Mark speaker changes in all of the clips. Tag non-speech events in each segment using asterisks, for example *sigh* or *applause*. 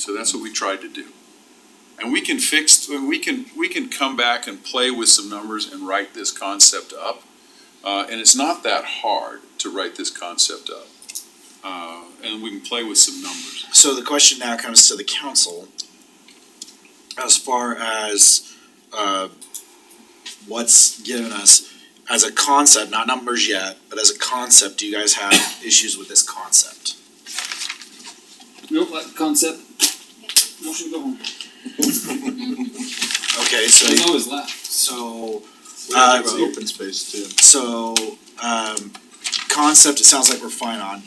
Speaker 1: So that's what we tried to do. And we can fix, we can, we can come back and play with some numbers and write this concept up. Uh, and it's not that hard to write this concept up. Uh, and we can play with some numbers.
Speaker 2: So the question now comes to the council as far as, uh, what's given us as a concept, not numbers yet, but as a concept, do you guys have issues with this concept?
Speaker 3: Nope, like concept. Motion to go home.
Speaker 2: Okay, so,
Speaker 3: There's always left.
Speaker 2: so,
Speaker 4: Uh,
Speaker 2: Uh,
Speaker 4: it's open space too.
Speaker 2: so, um, concept, it sounds like we're fine on.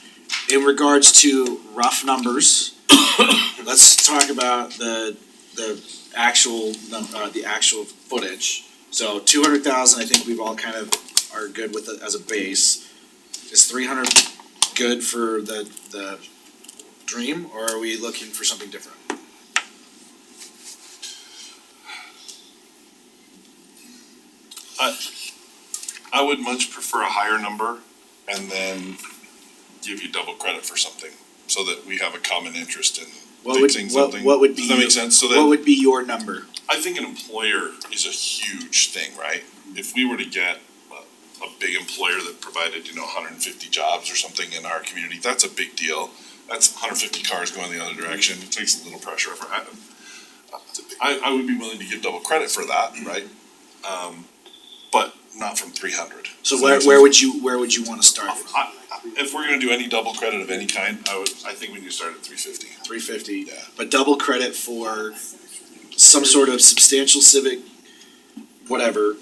Speaker 2: In regards to rough numbers, *coughs* let's talk about the, the actual, num- uh, the actual footage. So two hundred thousand, I think we've all kind of are good with it as a base. Is three hundred good for the, the dream, or are we looking for something different?
Speaker 5: I would much prefer a higher number and then give you double credit for something so that we have a common interest in
Speaker 2: What would,
Speaker 5: fixing
Speaker 2: what,
Speaker 5: something.
Speaker 2: what would be,
Speaker 5: Does that make sense? So
Speaker 2: what
Speaker 5: that,
Speaker 2: would be your number?
Speaker 5: I think an employer is a huge thing, right? If we were to get a, a big employer that provided, you know, hundred and fifty jobs or something in our community, that's a big deal. That's hundred and fifty cars going the other direction, it takes a little pressure off. I, I, I would be willing to give double credit for that, right? Um, but not from three hundred.
Speaker 2: So where, where would you, where would you wanna start from?
Speaker 5: I, I- if we're gonna do any double credit of any kind, I would, I think we need to start at three fifty.
Speaker 2: three fifty,
Speaker 5: Yeah.
Speaker 2: but double credit for some sort of substantial civic, whatever,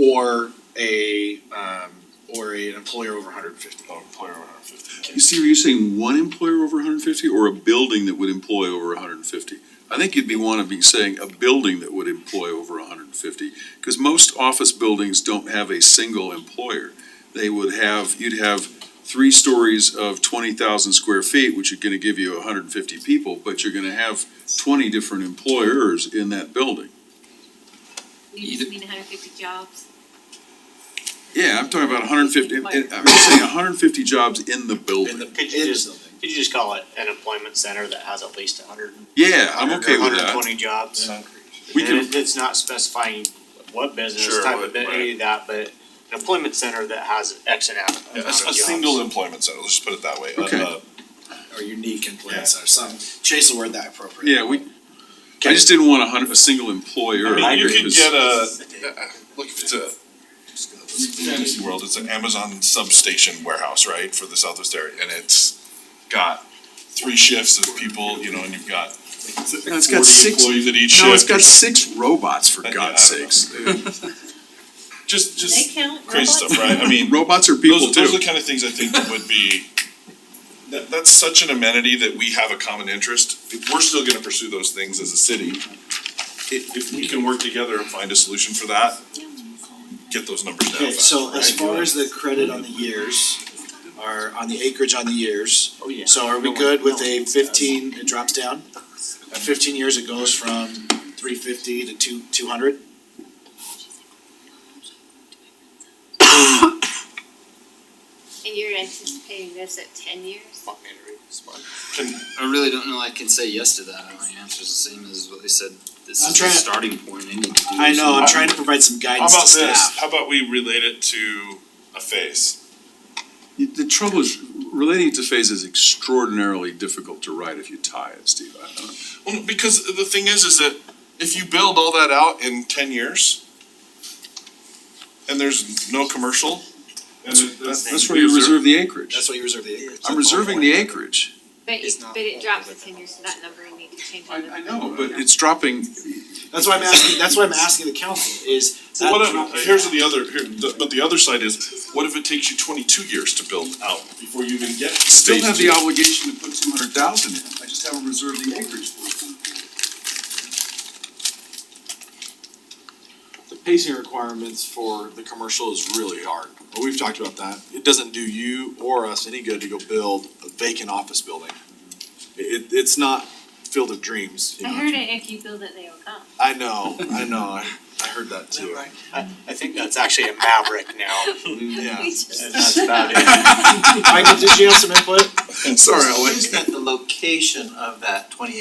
Speaker 2: or a, um, or a- an employer over hundred and fifty.
Speaker 5: Oh, employer one hundred fifty.
Speaker 1: You see, are you saying one employer over hundred and fifty or a building that would employ over hundred and fifty? I think you'd be one of be saying a building that would employ over hundred and fifty, because most office buildings don't have a single employer. They would have, you'd have three stories of twenty thousand square feet, which are gonna give you hundred and fifty people, but you're gonna have twenty different employers in that building.
Speaker 6: You just mean hundred fifty jobs?
Speaker 1: Yeah, I'm talking about hundred and fifty, I'm saying hundred and fifty jobs in the
Speaker 2: In
Speaker 1: building.
Speaker 2: the,
Speaker 7: Could you
Speaker 2: in
Speaker 7: just-
Speaker 2: something.
Speaker 7: Could you just call it an employment center that has at least hundred?
Speaker 1: Yeah, I'm okay with
Speaker 7: Hundred
Speaker 1: that.
Speaker 7: twenty jobs.
Speaker 1: We
Speaker 7: And
Speaker 1: can,
Speaker 7: it- it's not specifying what business
Speaker 5: Sure,
Speaker 7: type
Speaker 5: what-
Speaker 7: of, bit- any of that, but an employment center that has X amount of
Speaker 5: A,
Speaker 7: jobs.
Speaker 5: a single employment center, let's just put it that way. Uh,
Speaker 1: Okay.
Speaker 5: uh,
Speaker 2: or unique employment center, some, chase the word that appropriate.
Speaker 1: yeah, we, I just didn't want a hundred, a single employer.
Speaker 5: I mean, you could
Speaker 1: because-
Speaker 5: get a, uh, uh, look, if it's a, Disney World, it's an Amazon substation warehouse, right, for the Southwest area, and it's got three shifts of people, you know, and you've got
Speaker 1: No, it's
Speaker 5: forty
Speaker 1: got six,
Speaker 5: employees at each shift.
Speaker 1: no, it's got six robots, for
Speaker 5: Yeah,
Speaker 1: God's
Speaker 5: uh, I don't
Speaker 1: sakes.
Speaker 5: Just, just
Speaker 6: count
Speaker 5: crazy stuff, right? I mean,
Speaker 1: Robots are people
Speaker 5: those, those are
Speaker 1: too.
Speaker 5: the kind of things I think that would be, that, that's such an amenity that we have a common interest. If We're still gonna pursue those things as a city. If, if we can work together and find a solution for that, get those numbers down.
Speaker 2: Okay, so
Speaker 5: faster,
Speaker 2: as
Speaker 5: right?
Speaker 2: far as the credit on the years, or on the acreage on the years,
Speaker 3: Oh, yeah.
Speaker 2: so are we good with a fifteen, it drops down? At fifteen years, it goes from three fifty to two, two hundred?
Speaker 6: And you're anticipating this at ten years?
Speaker 3: I really don't know. I can say yes to that. My answer's the same as what they said. This
Speaker 2: I'm
Speaker 3: is the
Speaker 2: trying to-
Speaker 3: starting point. They need to do
Speaker 2: I know, I'm
Speaker 3: something.
Speaker 2: trying to provide some
Speaker 5: uh, How
Speaker 2: guidance to
Speaker 5: about this,
Speaker 2: staff.
Speaker 5: how about we relate it to a phase?
Speaker 1: The trouble is, relating to phase is extraordinarily difficult to write if you tie it, Steve. I don't know.
Speaker 5: Well, because the thing is, is that if you build all that out in ten years, and there's no commercial, and
Speaker 1: That's where you reserve the acreage.
Speaker 2: That's why you reserve the acreage.
Speaker 1: I'm reserving the acreage.
Speaker 6: But it,
Speaker 2: It's not-
Speaker 6: but it drops at ten years, so that number will need to change.
Speaker 1: know. But it's dropping,
Speaker 2: That's why I'm asking, that's why I'm asking the council is. that
Speaker 5: Well,
Speaker 2: drop-
Speaker 5: What if, here's the other, here, the- but the other side is, what if it takes you twenty-two years to build out before you even get to
Speaker 1: still
Speaker 5: stage
Speaker 1: have the
Speaker 5: two?
Speaker 1: obligation to put two hundred thousand in. I just haven't reserved the acreage for it.
Speaker 8: the pacing requirements for the commercial is really hard. But we've talked about that. It doesn't do you or us any good to go build a vacant office building. It, it's not Field of Dreams. you
Speaker 6: I
Speaker 8: know.
Speaker 6: heard it, if you build it, they will come.
Speaker 8: I know, I know. I, I heard that too.
Speaker 7: I, I think that's actually a maverick now,
Speaker 8: Yeah.
Speaker 6: *laughs* We just-
Speaker 7: and that's about it.
Speaker 2: Michael, did you have some input?
Speaker 5: Sorry, Alex.
Speaker 9: Is that the location of that twenty